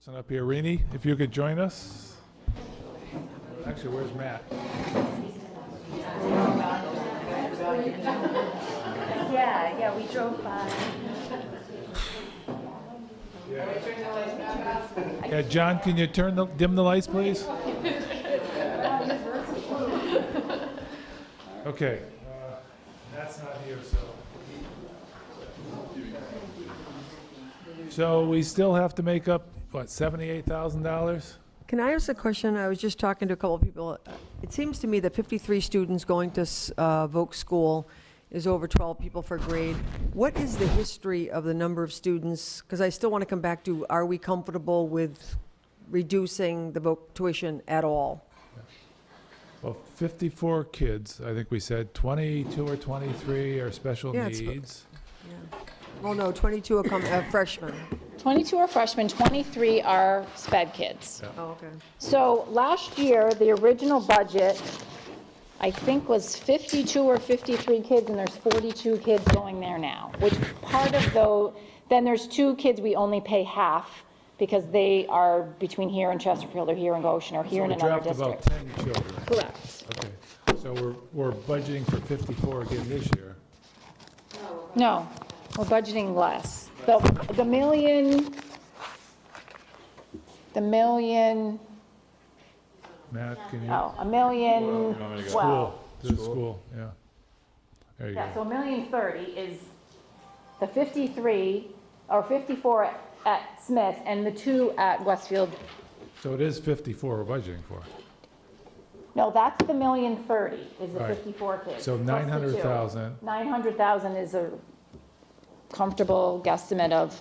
Listen up, Pierini, if you could join us. Actually, where's Matt? Yeah, yeah, we drove by. Yeah, John, can you turn the, dim the lights, please? Okay. uh, Matt's not here, so. So we still have to make up, what, $78,000? Can I ask a question? I was just talking to a couple of people. It seems to me that 53 students going to s- uh, Voke School is over 12 people per grade. What is the history of the number of students? Because I still want to come back to, are we comfortable with reducing the Voke tuition at all? Well, 54 kids, I think we said, 22 or 23 are special Yeah, it's- needs. Well, no, 22 are come- uh, freshmen. 22 are freshmen, 23 are sped kids. Oh, okay. So last year, the original budget, I think, was 52 or 53 kids, and there's 42 kids going there now, which part of though, then there's two kids we only pay half because they are between here and Chesterfield, or here in Goshen, or here in We another dropped about district. 10 children. Correct. Okay, so we're, we're budgeting for 54 again this year. No, we're budgeting less. The, the million, the million, Matt, can you? oh, a million, well. School, to the school, yeah. There you Yeah, go. so a million thirty is the fifty-three, or fifty-four at- at Smith, and the two at Westfield. So it is 54 we're budgeting for. No, that's the million thirty, is the Right. fifty-four kids. So 900,000, Nine hundred thousand is a comfortable guesstimate of,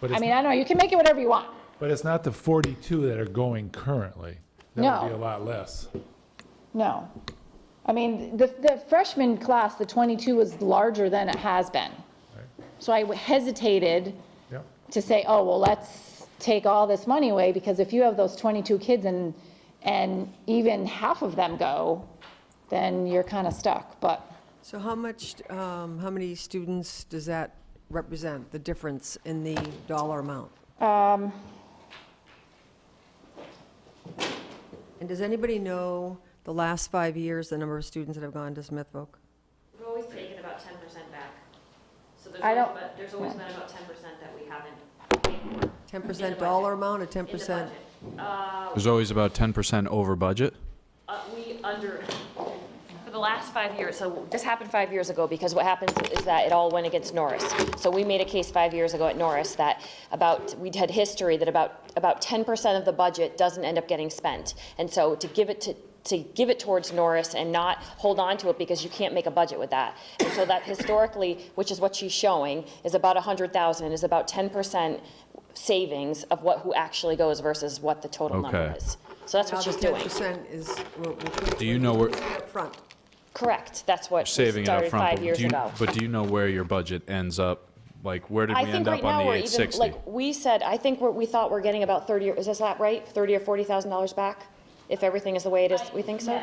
But I it's mean, I don't know, you can make it whatever you want. but it's not the 42 that are going currently. That would be a No. lot less. No. I mean, the, the freshman class, the twenty-two is larger than it has been. Right. So I hesitated Yep, to say, oh, well, let's take all this money away, because if you have those 22 kids and, and even half of them go, then you're kind of stuck, but So how much, um, how many students does that represent, the difference in the dollar amount? And does anybody know the last five years, the number of students that have gone to Smith Voc? We've always taken about ten percent back. So there's I always, don't- about- there's always been about ten percent that we haven't paid for in 10% dollar amount or the 10%? budget. Uh, There's always about 10% over budget. uh, we under, for the last five years, so this happened five years ago, because what happens is that it all went against Norris. So we made a case five years ago at Norris that about, we'd had history that about, about ten percent of the budget doesn't end up getting spent. And so to give it to, to give it towards Norris and not hold on to it because you can't make a budget with that. And so that historically, which is what she's showing, is about a hundred thousand, is about ten percent savings of what, who actually goes versus what the total number Okay. is. So that's Now what the she's doing. 10% is, we'll, we'll put Do you know where, it up front. Correct, that's what we saving it up started front, five but years do you, ago. but do you know where your budget ends up? Like, where did I we think end right up now on the we're even, 860? like, we said, I think we're, we thought we're getting about thirty, or- is this that right? Thirty or forty thousand dollars back? If everything is the way it is, we think so?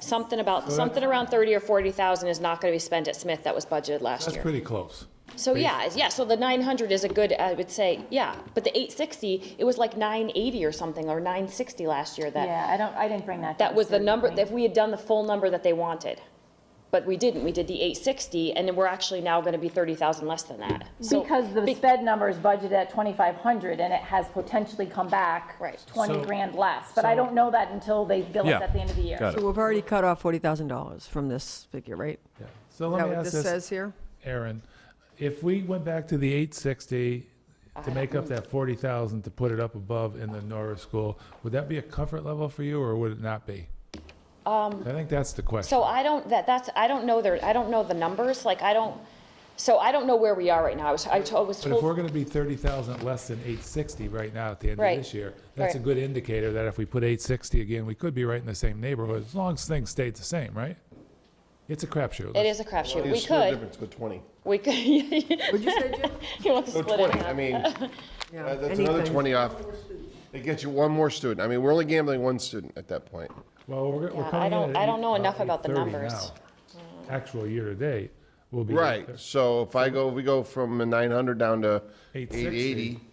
Something about, something around thirty or forty thousand is not gonna be spent at Smith that was budgeted last that's year. pretty close. So, yeah, it's- yeah, so the nine hundred is a good, I would say, yeah, but the eight sixty, it was like nine eighty or something, or nine sixty last year that, yeah, I don't, I didn't bring that. that was the number, that if we had done the full number that they wanted. But we didn't, we did the eight sixty, and then we're actually now gonna be thirty thousand less than that. So- Because the Be- sped number is budgeted at 2,500 and it has potentially come back Right. 20 So- grand less, but I so- don't know that until they bill Yeah, us at the end of the year. got it. So we've already cut off $40,0and from this figure, right? Yeah. So Is let that me what ask this this, says here? Uh, Aaron, if we went back to the 860 to make up that 40,000 to put it up above in the Norris School, would that be a comfort level for you, or would it not be? I think that's the question. Um, So I don't, that, that's, I don't know their, I don't know the numbers, like, I don't, so I don't know where we are right now. I was, I to- I was But if we're told, gonna be thirty thousand less than eight sixty right now at the end of Right. this year, that's a Right. good indicator that if we put eight sixty again, we could be right in the same neighborhood, as long as things stayed the same, right? It's a crapshoot. it is a crapshoot. We It's split could, difference, go 20. we could. Would you say, Jim? You want to Oh, Go split it 20, I half. mean, uh, Yeah, that's another anything. 20 off. It gets you one more student. I mean, we're only gambling one student at that point. Well, we're, we're Yeah, I coming in don't- at I don't know eight- enough about the 830 numbers. now. Actual year to date will be. Right, so if I go, we go from a 900 down to 860. 880.